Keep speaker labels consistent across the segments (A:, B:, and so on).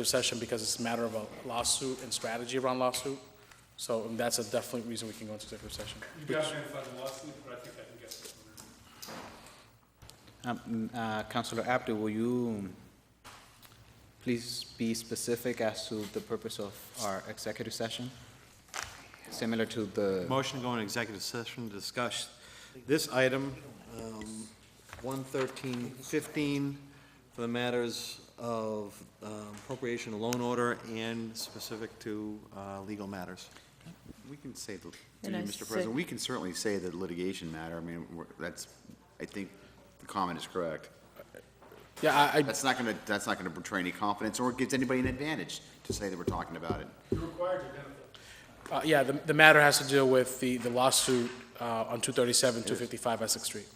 A: executive session because it's a matter of a lawsuit and strategy around lawsuit. So and that's a definitely reason we can go into executive session.
B: You guys can find the lawsuit, but I think I can get this one.
C: Um, uh, Councilor Abdu, will you please be specific as to the purpose of our executive session? Similar to the,
D: Motion to go into executive session to discuss this item, um, 11315, for the matters of um, appropriation of loan order and specific to uh, legal matters.
E: We can say, the-
F: And I
E: Mr. President,
F: sec-
E: we can certainly say the litigation matter, I mean, we're- that's, I think the comment is correct.
A: Yeah, I, I,
E: That's not gonna, that's not gonna betray any confidence, or it gives anybody an advantage to say that we're talking about it.
B: You're required to identify.
A: uh, yeah, the, the matter has to deal with the, the lawsuit, uh, on two thirty-seven, two fifty-five Essex Street.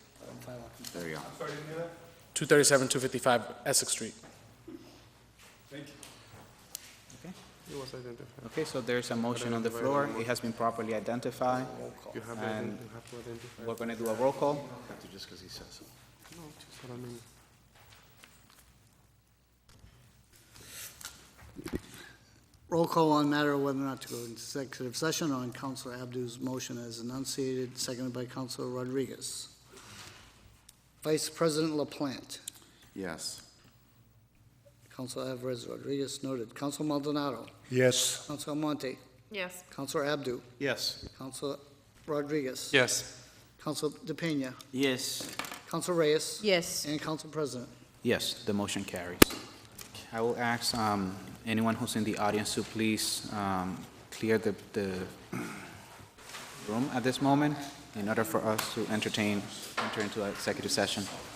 E: There you go.
B: Sorry, didn't hear that?
A: Two thirty-seven, two fifty-five Essex Street.
B: Thank you.
C: okay, so there's a motion on the floor. It has been properly identified. And we're going to do a roll call.
G: Roll call on matter of whether or not to go into executive session on Counselor Abdu's motion as enunciated, seconded by Counselor Rodriguez. Vice President LaPlante,
E: Yes.
G: Counselor Alvarez Rodriguez noted, Counselor Maldonado,
H: Yes.
G: Counselor Monte,
F: Yes.
G: Counselor Abdu,
D: Yes.
G: Counselor Rodriguez.
B: Yes.
G: Counselor DePena,
C: Yes.
G: Counselor Reyes.
F: Yes.
G: And Council President.
C: Yes, the motion carries. I will ask um, anyone who's in the audience to please um, clear the the room at this moment in order for us to entertain, enter into our executive session.